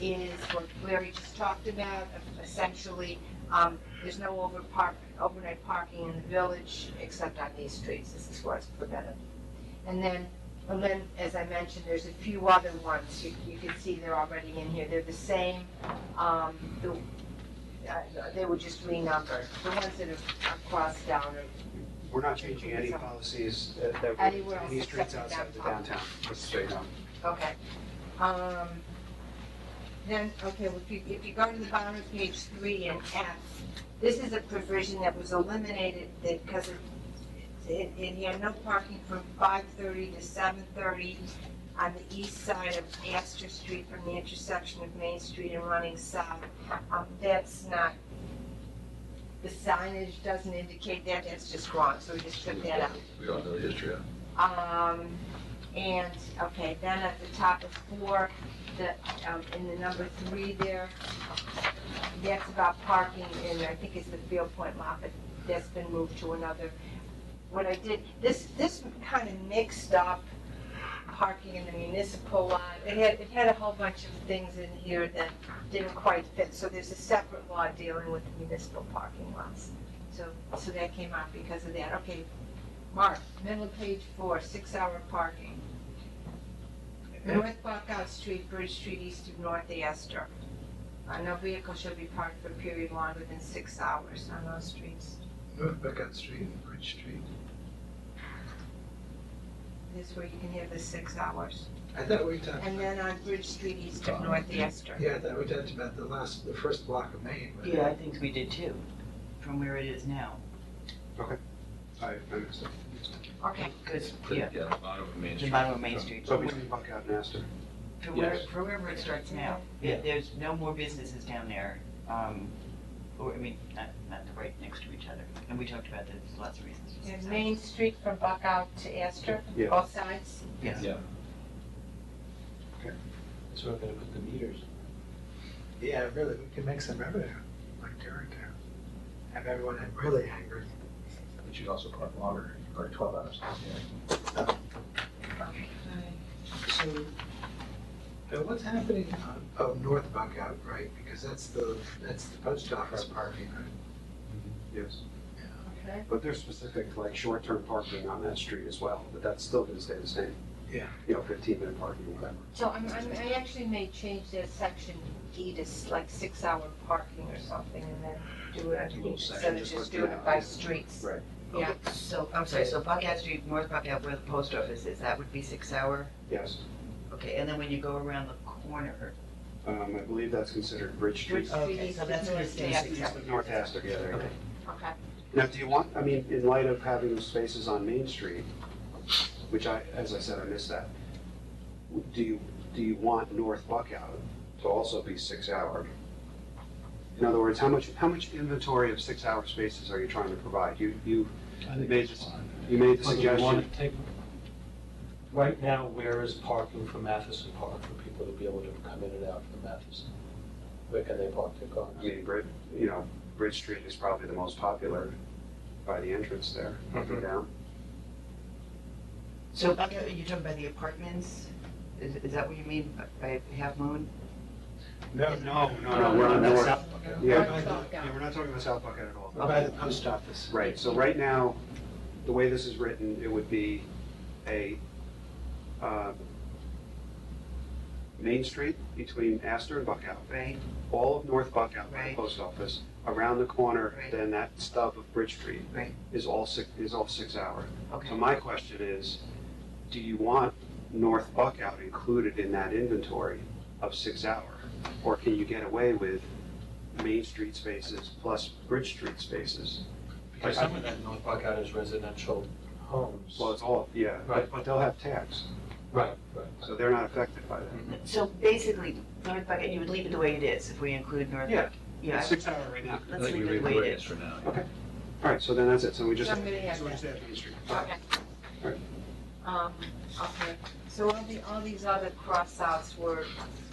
is what Larry just talked about, essentially, um, there's no over park, overnight parking in the village except on these streets, this is where it's prevented. And then, and then, as I mentioned, there's a few other ones, you, you can see they're already in here, they're the same, um, the, uh, they were just renumbered, the ones that are are crossed down are We're not changing any policies that, that, Anywhere else any streets except outside the downtown. downtown, let's say, um, Okay. Um, Then, okay, well, if you, if you go to the bottom of page three and F, this is a provision that was eliminated that, because it, it had no parking from five thirty to seven thirty on the east side of Astor Street from the intersection of Main Street and running south. Um, that's not, the signage doesn't indicate that, that's just wrong, so we just took that out. We all know the history of it. Um, and, okay, then at the top of four, the, um, in the number three there, that's about parking in, I think it's the Field Point lot, but that's been moved to another. What I did, this, this kind of mixed up parking in the municipal lot. It had, it had a whole bunch of things in here that didn't quite fit, so there's a separate law dealing with the municipal parking lots. So, so that came out because of that. Okay, Mark, middle of page four, six-hour parking. North Buckout Street, Bridge Street, east of North Astor. Uh, No vehicle shall be parked for a period longer than six hours on those streets. North Buckout Street and Bridge Street. This is where you can have the six hours. I thought we talked, And then on Bridge Street, east of North Astor. yeah, I thought we talked about the last, the first block of Maine. but- Yeah, I think we did too, from where it is now. I, I missed it. Okay, Because, yeah, Yeah, the bottom of Main the Street. bottom of Main Street. So between Buckout and Astor, From where, Yes. from wherever it starts now. Yeah. There- There's no more businesses down there, um, or, I mean, not, not the right next to each other. And we talked about this, lots of reasons. for and success. Main Street from Buckout to Astor, Yeah. both sides. Yes. Yeah. That's where we're gonna put the meters. Yeah, really, we can make some revenue, like during there. Have everyone really angry. But you'd also park longer, or twelve hours. So, uh, what's happening on, oh, North Buckout, right, because that's the, that's the post office parking, right? yes. Okay. But there's specific, like, short-term parking on that street as well, but that's still gonna stay the same. Yeah. You know, fifteen-minute parking, whatever. So I'm, I'm, I actually may change that section D to s- like six-hour parking or something, and then do it, A little instead section, of just just like doing that. it by streets. Right. Yeah, So, I'm sorry, so Buckout Street, North Buckout, where the post office is, that would be six hour? Yes, Okay, and then when you go around the corner. um, I believe that's considered Bridge Street. Bridge Street, so that's where it's- North yeah, Astor. East of North Astor, yeah, there you go. Okay. Okay, Now, do you want, I mean, in light of having those spaces on Main Street, which I, as I said, I missed that, do you, do you want North Buckout to also be six-hour? In other words, how much, how much inventory of six-hour spaces are you trying to provide? You, you, I think think Made it's it's fine. you made the suggestion, Right now, where is parking for Matheson Park for people to be able to come in and out from Matheson? Where can they park their cars? I mean, Brid, you know, Bridge Street is probably the most popular by the entrance there, up and down. So Buckout, you're talking about the apartments? Is, is that what you mean by half moon? No, no, no, no, we're on that's North. South Yeah, North Buckout. yeah, we're not talking about South Buckout at all. Or by the post office. Right, so right now, the way this is written, it would be a, uh, Main Street between Astor and Buckout, Right, all of North Buckout by the Right. post office, around the corner, Right. then that stub of Bridge Street Right. is all six, is all six hour. okay. So my question is, do you want North Buckout included in that inventory of six hour? Or can you get away with Main Street spaces plus Bridge Street spaces? Because some of that North Buckout is residential homes. Well, it's all, yeah, but, Right. but they'll have tax, Right, right. so they're not affected by that. So basically, North Buckout, you would leave it the way it is if we include North Yeah. Buckout? Yeah. It's six hour right now. Let's leave it the way it is. for now. All right, so then that's it, so we just. So I'm gonna have so we that. just have Main Street. okay. Alright. Um, okay, so all the, all these other cross-outs were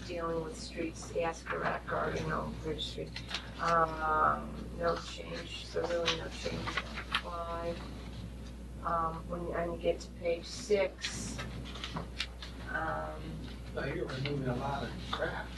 dealing with streets, Ascarack or, you know, Bridge Street. Um, no change, so really no change on five. Um, when, and you get to page six, um, Now, you're removing a lot of crap.